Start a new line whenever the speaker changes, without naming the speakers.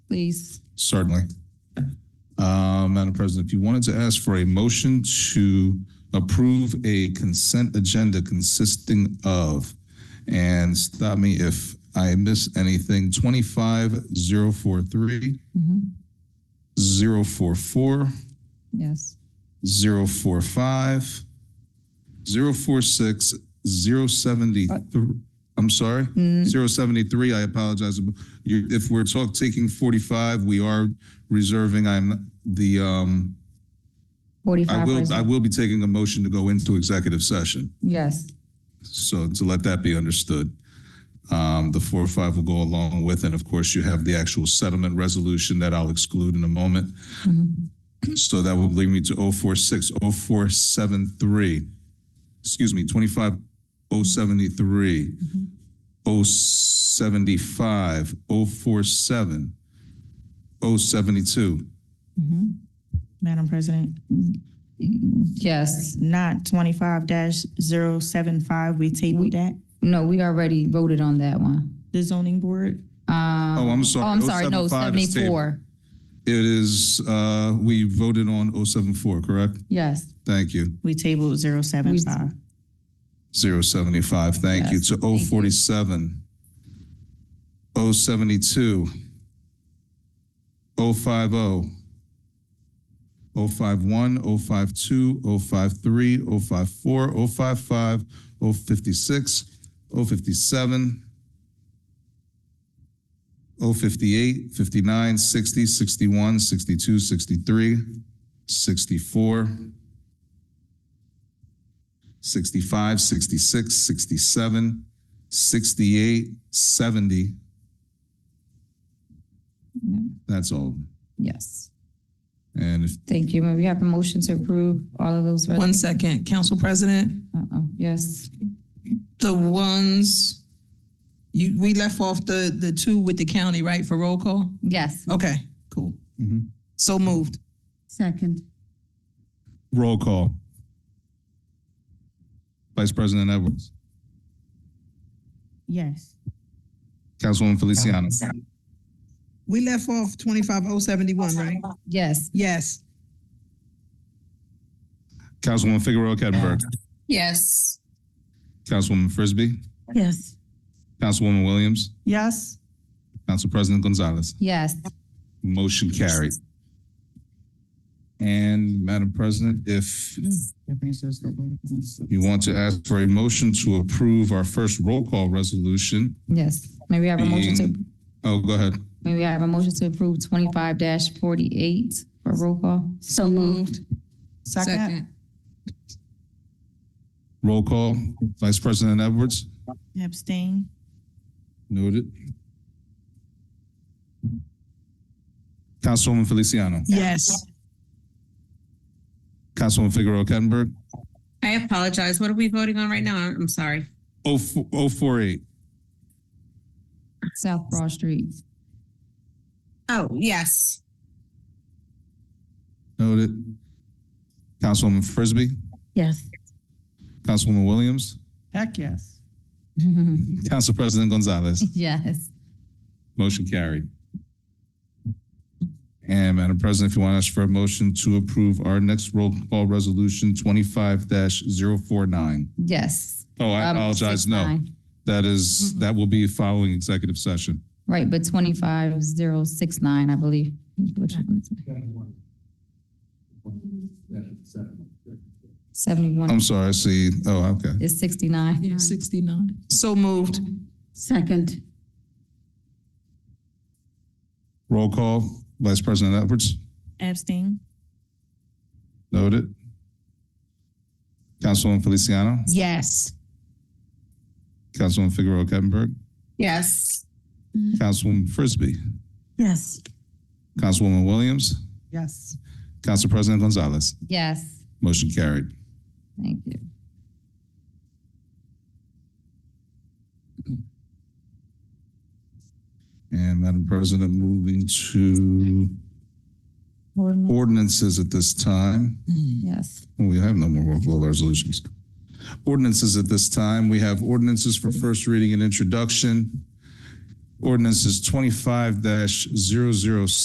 please?
Certainly. Uh, Madam President, if you wanted to ask for a motion to approve a consent agenda consisting of, and stop me if I miss anything, 25043,
Mhm.
044,
Yes.
045, 046, 073, I'm sorry?
Mm,
073, I apologize. You- If we're talk, taking 45, we are reserving, I'm, the, um, I
Forty-five
will, I
percent.
will be taking a motion to go into executive session,
Yes,
so to let that be understood. Um, The four or five will go along with, and of course, you have the actual settlement resolution that I'll exclude in a moment.
Mhm.
So that will bring me to 046, 0473, excuse me, 25073,
Mm-hmm.
075, 047, 072.
Madam President,
yes.
not twenty-five 75 we tabled that,
No, we already voted on that one.
the zoning board.
Um,
Oh, I'm
Oh,
sorry.
I'm sorry, no,
075 is tabled.
seventy-four.
It is, uh, we voted on 074, correct?
Yes,
Thank you.
We tabled 075.
075, thank you,
Yes,
to 047, 072, 050, 051, 052, 053, 054, 055, 056, 057, 058, 59, 60, 61, 62, 63, 64, 65, 66, 67, 68, 70. That's all.
yes.
And if,
Thank you. May we have a motion to approve all of those? res-
One second, Council President,
Uh-oh, Yes,
the ones, you, we left off the, the two with the county, right, for roll call?
yes.
Okay, cool.
Mhm.
So moved.
Second.
roll call. Vice President Edwards.
Yes.
Councilwoman Feliciano.
We left off twenty-five oh seventy-one, right?
Yes,
Yes.
Councilwoman Figueroa Kettner.
Yes.
Councilwoman Frisbee.
Yes.
Councilwoman Williams.
Yes.
Council President Gonzalez.
yes.
Motion carried. And Madam President, if you want to ask for a motion to approve our first roll call resolution,
Yes, may we have a motion to,
Being- oh, go ahead.
may we have a motion to approve twenty-five forty-eight for roll call?
So moved. Second.
Roll call, Vice President Edwards,
Abstain.
noted. Councilwoman Feliciano,
Yes.
Councilwoman Figueroa Kettenberg,
I apologize. What are we voting on right now? I'm I'm sorry.
oh, four, oh, four, eight,
South Broad Street.
Oh, yes.
noted. Councilwoman Frisbee,
Yes.
Councilwoman Williams,
Heck, yes.
Council President Gonzalez,
Yes,
motion carried. And Madam President, if you want to ask for a motion to approve our next roll call resolution twenty-five 49
yes.
Oh, I
Um,
apologize,
six,
no,
nine.
that is, that will be following executive session.
Right, but twenty-five zero six nine, I believe. Seventy-one
I'm sorry, I see, oh, okay.
is sixty-nine.
Sixty-nine. So moved.
Second.
Roll call, Vice President Edwards,
Abstain.
noted. Councilwoman Feliciano,
Yes.
Councilwoman Figueroa Kettenberg,
Yes.
Councilwoman Frisbee,
Yes.
Councilwoman Williams,
Yes.
Council President Gonzalez.
Yes,
Motion carried.
thank you.
And Madam President, moving to ordinances at this time.
Yes,
We have no more roll call resolutions. Ordinances at this time, we have ordinances for first reading and introduction. Ordinances twenty-five 7